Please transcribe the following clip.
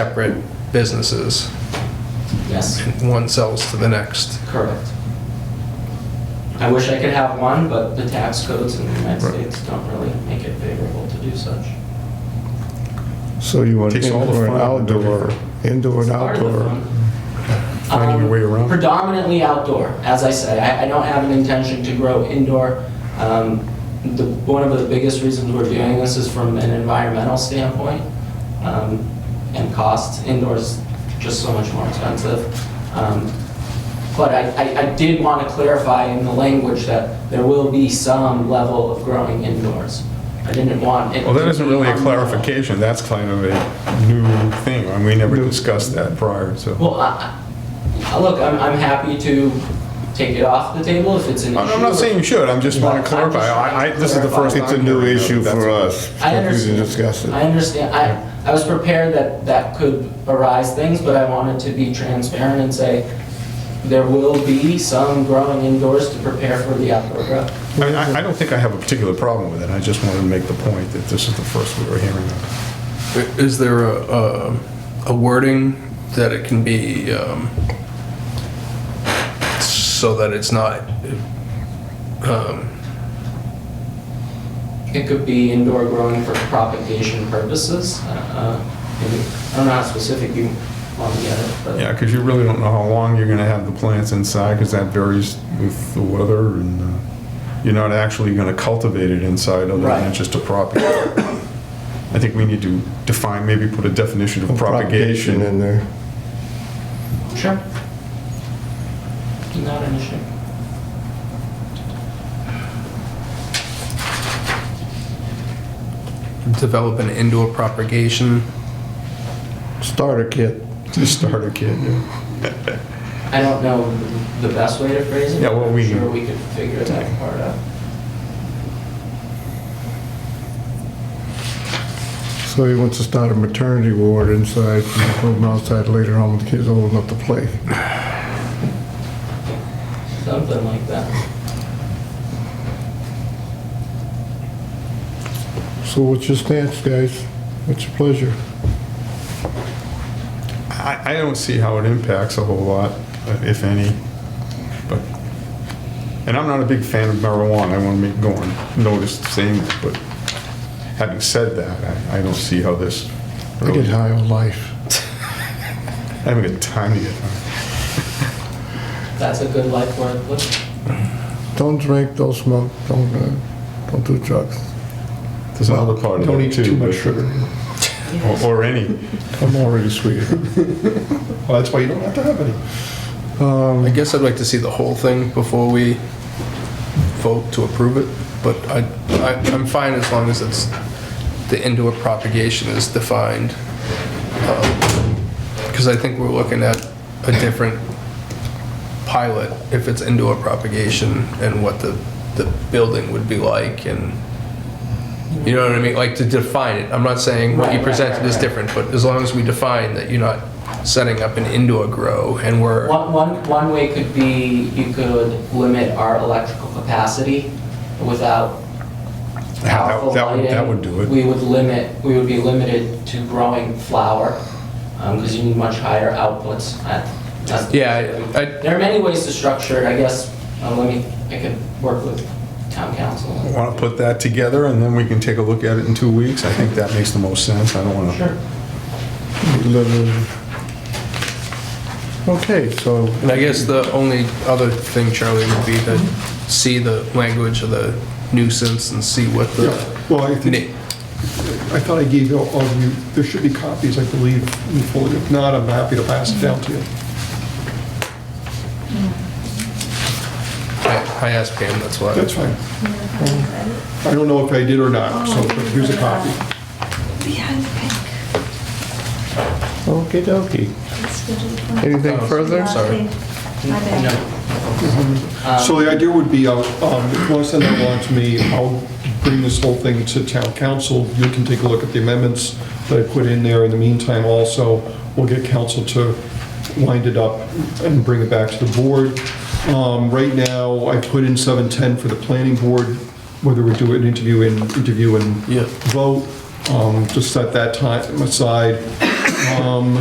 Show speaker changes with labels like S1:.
S1: separate businesses.
S2: Yes,
S1: and One sells to the next.
S2: correct. I wish I could have one, but the tax codes in the United
S1: Right.
S2: States don't really make it favorable to do such.
S3: So you want
S4: Takes all the
S3: indoor and
S4: fun out of it.
S3: outdoor, indoor and
S2: Part of the
S3: outdoor.
S2: fun.
S4: Finding your
S2: Um,
S4: way around.
S2: Predominantly outdoor, as I said. I, I don't have an intention to grow indoor. Um, the, one of the biggest reasons we're doing this is from an environmental standpoint um, and cost. Indoors just so much more expensive. Um, but I, I, I did want to clarify in the language that there will be some level of growing indoors. I didn't want it.
S4: Well, that
S2: to
S4: isn't
S2: be
S4: really a
S2: unlawful.
S4: clarification, that's kind of a new thing, and we never discussed that prior, so.
S2: Well, I, I- look, I'm, I'm happy to take it off the table if it's an issue.
S4: I'm I'm not saying you should, I'm just want to clarify, I, I- this is the first time.
S3: It's a new
S4: hearing of it,
S3: issue
S4: that's
S3: for
S4: all.
S3: us.
S2: I
S3: so We
S2: understand.
S3: can discuss
S2: I
S3: it.
S2: understand, I, I was prepared that that could arise things, but I wanted to be transparent and say, there will be some growing indoors to prepare for the outdoor growth.
S4: I, I- I don't think I have a particular problem with it, I just wanted to make the point that this is the first we were hearing of.
S1: I- Is there a, a- a wording that it can be, um, so that it's not, um,
S2: It could be indoor growing for propagation purposes, uh, maybe, I don't know how specific you want to get it, but.
S4: Yeah, because you really don't know how long you're going to have the plants inside, because that varies with the weather, and uh, you're not actually going to cultivate it inside, other
S2: Right.
S4: than it's just a propagate. I think we need to define, maybe put a definition of propagation
S3: in there.
S2: Sure. Not an issue.
S1: develop an indoor propagation?
S3: Starter kit.
S4: to start a kid. yeah.
S2: I don't know the best way to phrase it.
S4: Yeah, well,
S2: but I'm
S4: we-
S2: Sure, we could figure that part out.
S3: So he wants to start a maternity ward inside, and put them outside later on when the kids are old enough to play.
S2: Something like that.
S3: So what's your stance, guys? What's your pleasure?
S4: I, I don't see how it impacts a whole lot, uh, if any, but, and I'm not a big fan of marijuana, I want to make, go on, notice saying that, but having said that, I, I don't see how this,
S3: I get high on life.
S4: having a time to get uh, high.
S2: That's a good life worth living.
S3: Don't drink, don't smoke, don't, uh, don't do drugs.
S4: There's another part of
S3: Don't
S4: it
S3: eat
S4: too.
S3: too much
S4: but-
S3: sugar.
S4: or- Or any.
S3: I'm already sweet.
S4: Well, that's why you don't have to have any.
S1: I
S2: Mm.
S1: guess I'd like to see the whole thing before we vote to approve it, but I, I, I'm fine as long as it's, the indoor propagation is defined. Because I think we're looking at a different pilot if it's indoor propagation and what the, the building would be like and, you know what I mean? Like to define it. I'm not saying what you
S2: Right, right,
S1: presented is
S2: right, right.
S1: different, but as long as we define that you're not setting up an indoor grow and we're.
S2: One, one, one way could be you could limit our electrical capacity without
S4: that-
S2: powerful
S4: that would- that
S2: lighting.
S4: would do it.
S2: We would limit, we would be limited to growing flower, because you need much higher outputs at. at-
S1: Yeah, I- I-
S2: There are many ways to structure it, I guess, uh, let me, I could work with town council.
S4: Want to put that together and then we can take a look at it in two weeks? I think that makes the most sense. I don't want to.
S2: Sure.
S3: Okay, so
S1: And I guess the only other thing, Charlie, would be to see the language of the nuisance and see what the.
S5: Well, I think,
S1: Na-
S5: I thought I gave all all of you, there should be copies, I believe, in the folder. If not, I'm happy to pass it down to you.
S1: I I asked Pam, that's why.
S5: That's fine. I don't know if I did or not, Uh, so but here's a copy.
S6: Behind the pink.
S3: Okie dokie.
S6: Let's go to the front.
S3: Anything
S1: Oh,
S3: further?
S1: Sorry.
S6: My bad.
S5: So the idea would be, I'll, um, if you want to send that along to me, I'll bring this whole thing to town council. You can take a look at the amendments that I put in there. In the meantime, also, we'll get council to wind it up and bring it back to the board. Um, Right now, I put in 710 for the planning board, whether we do an interview and, interview and
S1: Yeah.
S5: vote, um, just set that time aside. Um,